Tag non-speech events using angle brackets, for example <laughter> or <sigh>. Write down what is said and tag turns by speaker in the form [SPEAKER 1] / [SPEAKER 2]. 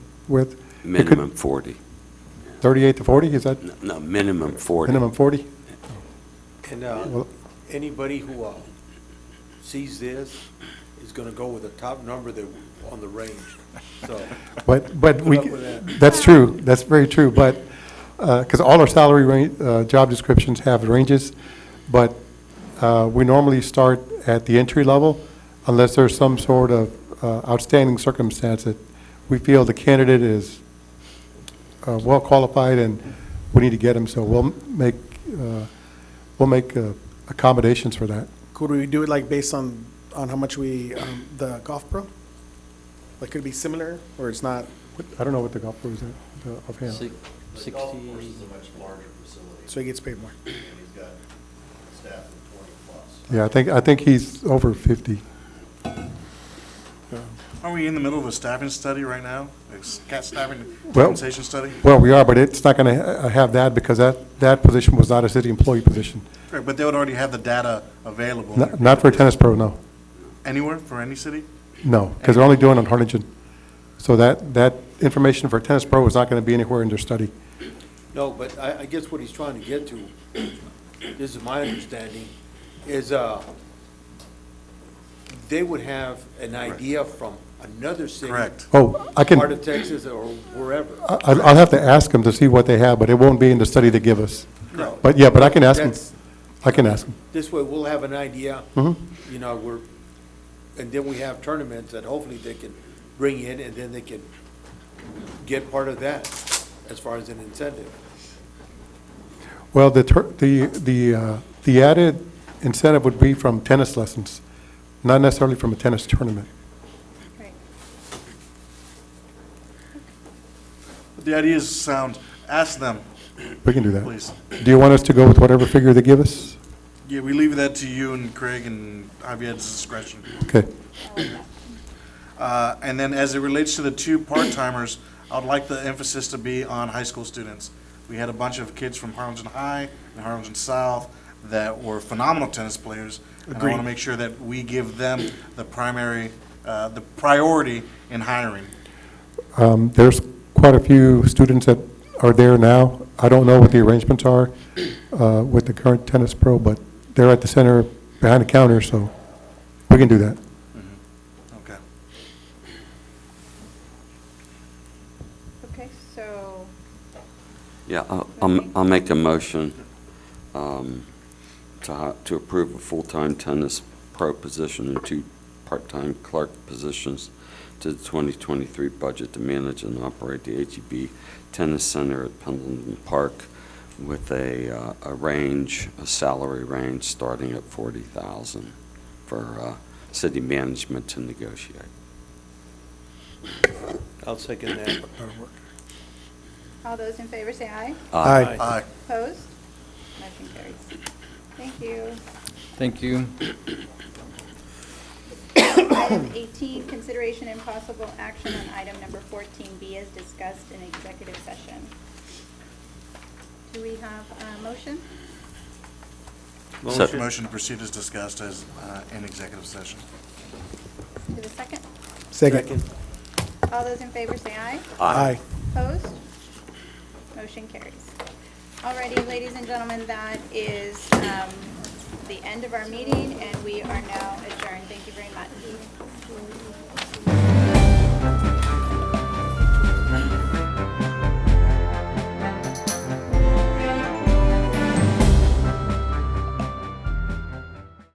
[SPEAKER 1] with
[SPEAKER 2] Minimum 40.
[SPEAKER 1] 38 to 40, is that
[SPEAKER 2] No, No, minimum 40.
[SPEAKER 1] minimum 40?
[SPEAKER 3] And uh,
[SPEAKER 1] Well-
[SPEAKER 3] anybody who uh, sees this is going to go with the top number that, on the range,
[SPEAKER 1] <laughs>
[SPEAKER 3] so.
[SPEAKER 1] But, but we,
[SPEAKER 3] Put up with
[SPEAKER 1] that's true, that's very true, but, because all our salary range, job descriptions have ranges, but uh, we normally start at the entry level unless there's some sort of uh, outstanding circumstance that we feel the candidate is uh, well-qualified and we need to get him, so we'll make, uh, we'll make uh, accommodations for that.
[SPEAKER 4] Could we do it like based on, on how much we, um, the golf pro? Like, could it be similar, or it's not?
[SPEAKER 1] What- I don't know what the golf was offhand.
[SPEAKER 5] Six-
[SPEAKER 6] The golf course
[SPEAKER 5] Sixty,
[SPEAKER 6] is a much larger facility,
[SPEAKER 4] So he gets paid more.
[SPEAKER 6] and he's got a staff of twenty plus.
[SPEAKER 1] Yeah, I think, I think he's over 50.
[SPEAKER 7] Are we in the middle of a staffing study right now? A scat staffing
[SPEAKER 1] Well-
[SPEAKER 7] compensation study?
[SPEAKER 1] Well, we are, but it's not going to have that because that, that position was not a city employee position.
[SPEAKER 7] Right, But they would already have the data available
[SPEAKER 1] Not not for a tennis pro, no.
[SPEAKER 7] anywhere for any city?
[SPEAKER 1] No, because they're only doing it on Harlingen. So that, that information for a tennis pro is not going to be anywhere in their study.
[SPEAKER 3] No, but I, I guess what he's trying to get to, this is my understanding, is, uh, they would have an idea from another city.
[SPEAKER 7] Correct.
[SPEAKER 1] Oh, I can,
[SPEAKER 3] Part of Texas or wherever.
[SPEAKER 1] I- I'll I'll have to ask them to see what they have, but it won't be in the study they give us.
[SPEAKER 3] No.
[SPEAKER 1] But yeah, but I can ask them.
[SPEAKER 3] That's-
[SPEAKER 1] I can ask them.
[SPEAKER 3] This way, we'll have an idea.
[SPEAKER 1] Mhm.
[SPEAKER 3] You know, we're, and then we have tournaments that hopefully they can bring in, and then they can get part of that as far as an incentive.
[SPEAKER 1] Well, the, tur- the, the uh, the added incentive would be from tennis lessons, not necessarily from a tennis tournament.
[SPEAKER 8] Right.
[SPEAKER 7] The idea is sound, ask them,
[SPEAKER 1] We can do that.
[SPEAKER 7] please.
[SPEAKER 1] Do you want us to go with whatever figure they give us?
[SPEAKER 7] Yeah, we leave that to you and Craig and Javier's discretion.
[SPEAKER 1] Okay.
[SPEAKER 7] Uh, And then as it relates to the two part-timers, I'd like the emphasis to be on high school students. We had a bunch of kids from Harlingen High and Harlingen South that were phenomenal tennis players. And I want to make sure that we give them the primary, uh, the priority in hiring.
[SPEAKER 1] Um, There's quite a few students that are there now. I don't know what the arrangements are uh, with the current tennis pro, but they're at the center behind the counter, so we can do that.
[SPEAKER 7] Okay.
[SPEAKER 8] Okay, so,
[SPEAKER 2] Yeah, I'll- I'll, I'll make a motion um, to, hi- to approve a full-time tennis pro position and two part-time clerk positions to the 2023 budget to manage and operate the HEB Tennis Center at Pendleton Park with a, uh, a range, a salary range starting at 40,000 for uh, city management to negotiate.
[SPEAKER 3] I'll second that.
[SPEAKER 8] all those in favor say aye.
[SPEAKER 1] Aye.
[SPEAKER 7] Aye.
[SPEAKER 8] Opposed? Motion carries. Thank you.
[SPEAKER 5] thank you.
[SPEAKER 8] Item 18, consideration and possible action on item number 14B as discussed in executive session. Do we have a motion?
[SPEAKER 2] Motion.
[SPEAKER 7] Motion to proceed as discussed as uh, in executive session.
[SPEAKER 8] To the second?
[SPEAKER 4] Second.
[SPEAKER 8] All those in favor say aye.
[SPEAKER 4] Aye.
[SPEAKER 8] Opposed? Motion carries. Alrighty, ladies and gentlemen, that is um, the end of our meeting, and we are now adjourned. Thank you very much.